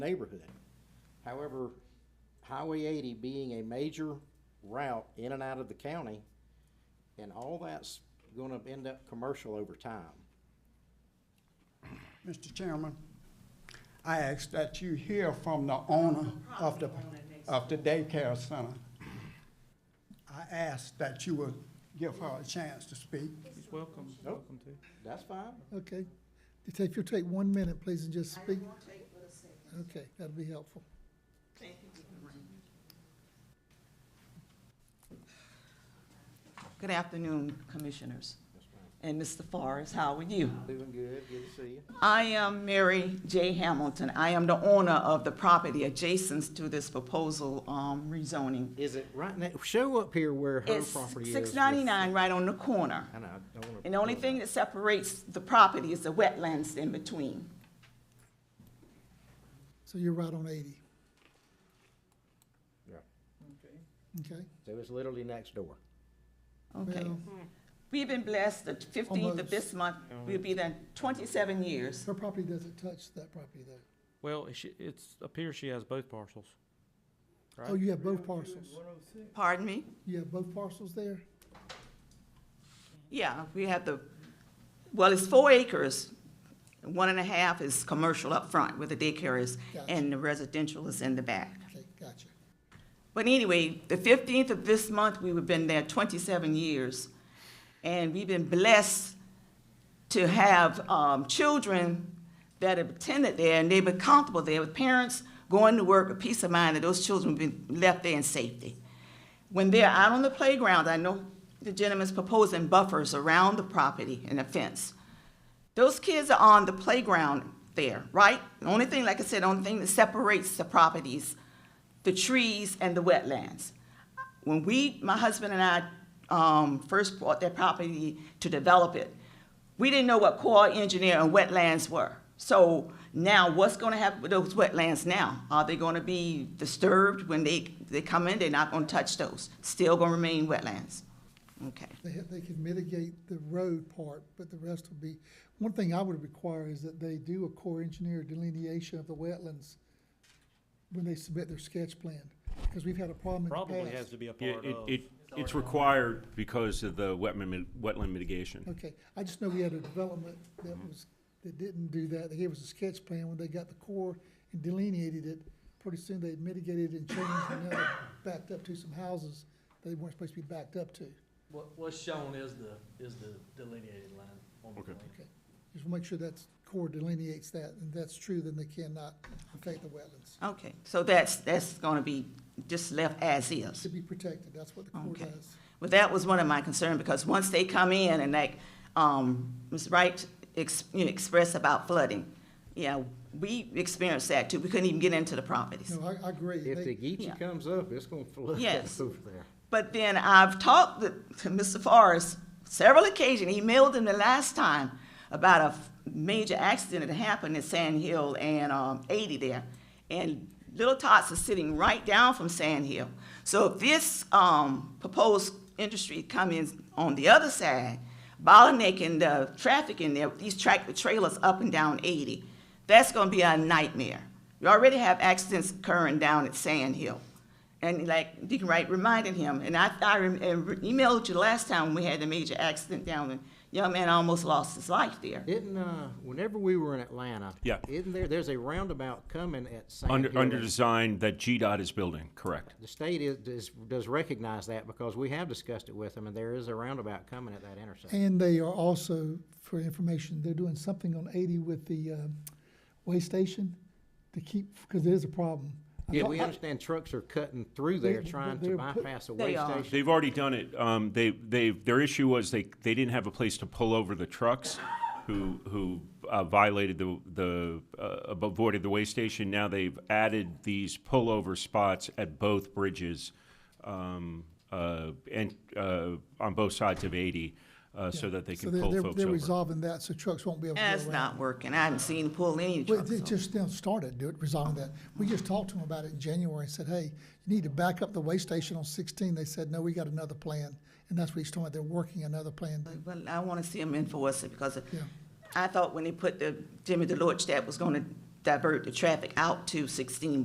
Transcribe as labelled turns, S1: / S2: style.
S1: neighborhood. However, Highway eighty being a major route in and out of the county, and all that's gonna end up commercial over time.
S2: Mr. Chairman, I ask that you hear from the owner of the, of the daycare center. I ask that you will give her a chance to speak.
S3: Welcome, welcome to.
S1: That's fine.
S4: Okay. If you take- if you'll take one minute, please, and just
S5: I
S4: speak.
S5: didn't want to take but a second.
S4: Okay, that'd be helpful.
S5: Thank you, Lorraine. Good afternoon, Commissioners. And Mr. Forrest, how are you?
S1: Doing good, good to see you.
S5: I am Mary J. Hamilton. I am the owner of the property adjacent to this proposal um, rezoning.
S1: Is it right now, show up here where her
S5: It's
S1: property is.
S5: six
S1: with-
S5: ninety-nine right on the corner.
S1: I know, I don't wanna.
S5: And the only
S1: pull
S5: thing
S1: it
S5: that separates the property is the wetlands in between.
S4: So you're right on eighty,
S1: up.
S4: okay?
S1: So it's literally next door.
S5: Okay.
S4: Well,
S5: We've been blessed, the fifteenth of
S4: Almost.
S5: this month, we'll be there twenty-seven years.
S4: Her property doesn't touch that property though.
S3: Well, it sh- it's, appears she has both parcels.
S4: Oh, you have both parcels.
S5: Pardon me?
S4: You have both parcels there?
S5: Yeah, we have the, well, it's four acres. One and a half is commercial up front where the daycare is,
S4: Gotcha.
S5: and the residential is in the back.
S4: Okay, gotcha.
S5: But anyway, the fifteenth of this month, we've been there twenty-seven years. And we've been blessed to have, um, children that have attended there and they've been comfortable there with parents going to work, a peace of mind that those children have been left there in safety. When they're out on the playground, I know the gentleman's proposing buffers around the property and a fence. Those kids are on the playground there, right? The only thing, like I said, the only thing that separates the properties, the trees and the wetlands. When we, my husband and I, um, first bought that property to develop it, we didn't know what core engineer and wetlands were. So now what's gonna happen with those wetlands now? Are they gonna be disturbed when they, they come in? They're not gonna touch those. Still gonna remain wetlands. Okay.
S4: They ha they can mitigate the road part, but the rest will be, one thing I would require is that they do a core engineer delineation of the wetlands when they submit their sketch plan, because we've had a problem in the past.
S3: Probably has to be a
S6: It,
S3: part
S6: it-
S3: of.
S6: it, it's required because of the wetland, mit- wetland mitigation.
S4: Okay, I just know we had a development that was, that didn't do that, they gave us a sketch plan when they got the core and delineated it. Pretty soon they mitigated and changed and now they backed up to some houses they weren't supposed to be backed up to.
S7: What, what's shown is the, is the delineated line on the
S6: Okay.
S7: plan.
S4: Okay, just wanna make sure that's, core delineates that, and that's true, then they cannot affect the wetlands.
S5: Okay, so that's, that's gonna be just left as is.
S4: To be protected, that's what the core
S5: Okay.
S4: does.
S5: Well, that was one of my concerns, because once they come in and like, um, Ms. Wright ex- you know, expressed about flooding, yeah, we experienced that too. We couldn't even get into the properties.
S4: No, I, I agree.
S1: If the
S4: They-
S1: Geechee
S5: Yeah.
S1: comes up, it's gonna flood
S5: Yes.
S1: over there.
S5: But then I've talked to to Mr. Forrest several occasions, he mailed him the last time about a f- major accident that happened at Sand Hill and, um, eighty there. And Little Tots is sitting right down from Sand Hill. So if this, um, proposed industry come in on the other side, bottlenecking the traffic in there, these tractor trailers up and down eighty, that's gonna be a nightmare. You already have accidents occurring down at Sand Hill. And like Deacon Wright reminded him, and I, I rem- and re- emailed you last time we had the major accident down, and young man almost lost his life there.
S1: Didn't, uh, whenever we were in Atlanta.
S6: Yeah.
S1: Isn't there, there's a roundabout coming at Sand
S6: Under,
S1: Hill
S6: under
S1: that-
S6: design that GDOT is building, correct.
S1: The state is, does, does recognize that because we have discussed it with them and there is a roundabout coming at that intersection.
S4: And they are also, for information, they're doing something on eighty with the, um, way station to keep, because there's a problem. I
S1: Yeah,
S4: talked-
S1: we
S4: I-
S1: understand trucks are cutting through there
S4: They-
S1: trying
S4: they're
S1: to
S4: put-
S1: bypass a
S5: They
S1: way
S5: are.
S1: station.
S6: They've already done it. Um, they, they, their issue was they, they didn't have a place to pull over the trucks who, who uh, violated the, the, uh, avoided the way station. Now they've added these pullover spots at both bridges, um, uh, and, uh, on both sides of eighty, uh, so that they
S4: So
S6: can
S4: they're-
S6: pull
S4: they're-
S6: folks
S4: They're
S6: over.
S4: resolving that, so trucks won't be able to go around.
S5: That's not working. I haven't seen him pull any
S4: Well,
S5: trucks.
S4: it
S5: over.
S4: just now started, do it, resolving that. We just talked to them about it in January and said, hey, you need to back up the way station on sixteen. They said, no, we got another plan. And that's what he's talking about, they're working another plan.
S5: But I wanna see him enforce it, because
S4: Yeah.
S5: I thought when they put the Jimmy Deloach, that was gonna divert the traffic out to sixteen